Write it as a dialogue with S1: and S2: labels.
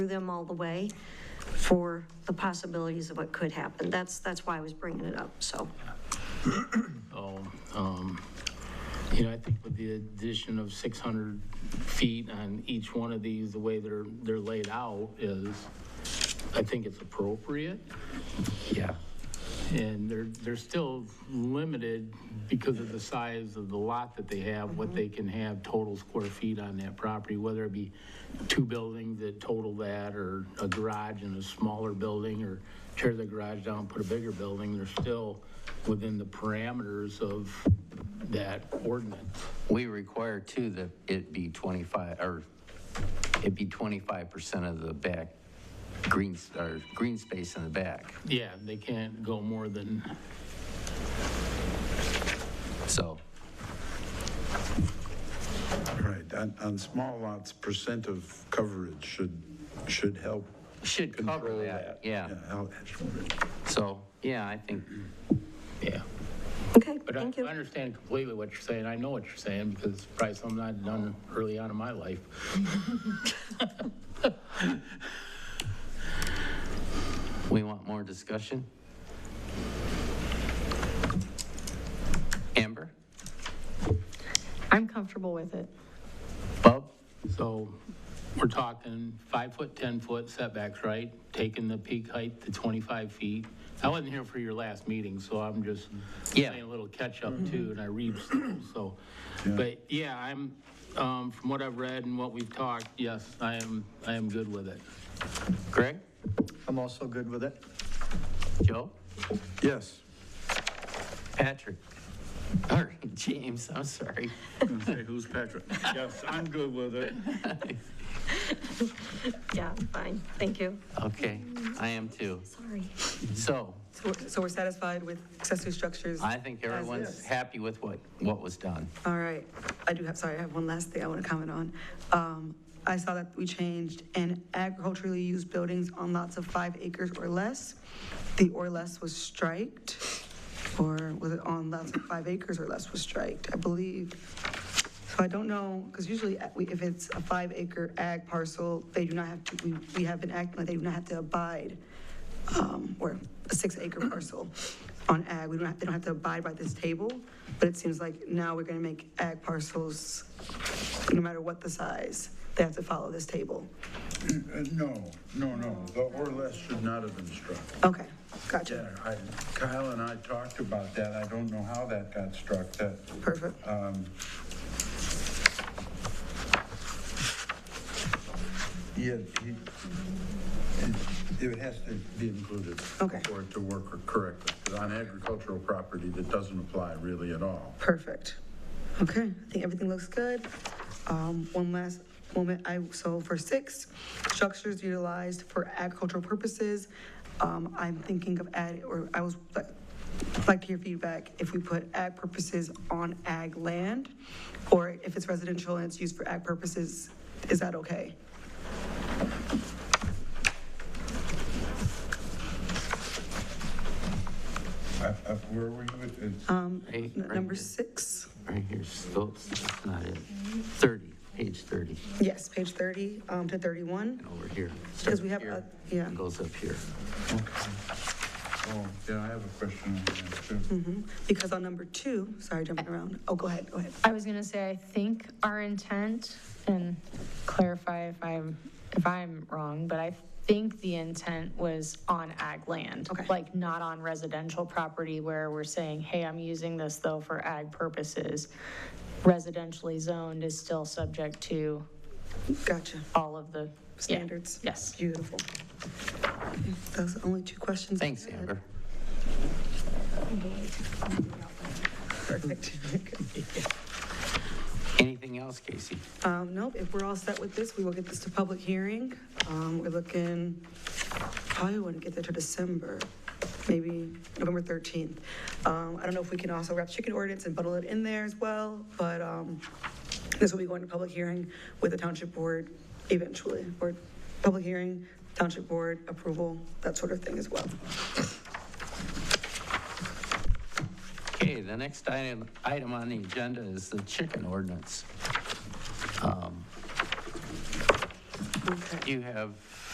S1: through them all the way for the possibilities of what could happen. That's, that's why I was bringing it up, so.
S2: Um, You know, I think with the addition of 600 feet on each one of these, the way they're, they're laid out is, I think it's appropriate.
S3: Yeah.
S2: And they're, they're still limited because of the size of the lot that they have, what they can have total square feet on that property, whether it be two buildings that total that, or a garage and a smaller building, or tear the garage down, put a bigger building, they're still within the parameters of that ordinance.
S3: We require too that it be 25, or it be 25% of the back green, s- or green space in the back.
S2: Yeah, they can't go more than,
S3: So,
S4: Right, on, on small lots, percent of coverage should, should help.
S3: should cover
S4: control
S3: that, yeah.
S4: help-
S3: So, yeah, I think,
S2: yeah.
S1: Okay,
S2: But I
S1: thank you.
S2: I understand completely what you're saying. I know what you're saying because it's probably something I've done early on in my life.
S3: we want more discussion. Amber?
S5: I'm comfortable with it.
S3: Bub?
S2: So we're talking five foot, 10 foot setbacks, right? Taking the peak height to 25 feet. I wasn't here for your last meeting, so I'm just
S3: Yeah.
S2: playing a little catch up too, and I read slow, so. But yeah, I'm, um, from what I've read and what we've talked, yes, I am, I am good with it.
S3: Greg?
S6: I'm also good with it.
S3: Joe?
S4: Yes,
S3: Patrick? All right, James, I'm sorry.
S7: Hey, who's Patrick? Yes, I'm good with it.
S1: Yeah, fine, thank you.
S3: Okay, I am too.
S1: Sorry.
S3: So,
S8: So we're- So we're satisfied with accessory structures?
S3: I think everyone's happy with what, what was done.
S8: All right. I do have, sorry, I have one last thing I want to comment on. Um, I saw that we changed in agriculturally used buildings on lots of five acres or less. The or less was striked, or was it on lots of five acres or less was striked, I believe. So I don't know, because usually uh, we- if it's a five acre ag parcel, they do not have to, we, we have been acting like they do not have to abide, um, or a six acre parcel on ag, we don't have, they don't have to abide by this table, but it seems like now we're gonna make ag parcels, no matter what the size, they have to follow this table.
S4: Uh, no, no, no, the or less should not have been struck.
S8: Okay, gotcha,
S4: Yeah, I- Kyle and I talked about that, I don't know how that got struck, that,
S8: perfect.
S4: um, yeah, he, it- it has to be included.
S8: Okay.
S4: For it to work correctly, 'Cause on agricultural property, that doesn't apply really at all.
S8: Perfect. Okay, I think everything looks good. Um, one last moment, I, so for six, structures utilized for agricultural purposes, um, I'm thinking of add, or I was, like to hear feedback, if we put ag purposes on ag land, or if it's residential and it's used for ag purposes, is that okay?
S4: Uh, uh, Where were you with, it's-
S3: Right-
S8: N-
S3: right
S8: Number
S3: here.
S8: six,
S3: Right here, so that's not it. 30, page 30,
S8: yes, page thirty, um, to thirty-one,
S3: and over here.
S8: because
S3: Starts
S8: we have,
S3: here
S8: a- yeah.
S3: and Goes up here.
S4: oh, yeah, I have a question on that too.
S8: Because on number two, sorry, jumping around. Oh, go ahead, go ahead.
S5: I was gonna say, I think our intent, and clarify if I'm, if I'm wrong, but I think the intent was on ag land.
S8: Okay.
S5: Like, not on residential property where we're saying, hey, I'm using this though for ag purposes. Residentially zoned is still subject to
S8: Gotcha.
S5: all of the. yeah.
S8: Standards.
S5: Yes.
S8: Beautiful. Those are the only two questions. I
S3: Thanks,
S8: had.
S3: Amber.
S8: Perfect.
S3: Anything else, Casey?
S8: Um, nope, if we're all set with this, we will get this to public hearing. Um, we're looking, probably wouldn't get there till December, maybe November 13th. Um, I don't know if we can also wrap chicken ordinance and bundle it in there as well, but, um, this will be going to public hearing with the township board eventually, or public hearing, township board approval, that sort of thing as well.
S3: Okay, the next item, item on the agenda is the chicken ordinance. Um,
S8: Okay.
S3: You have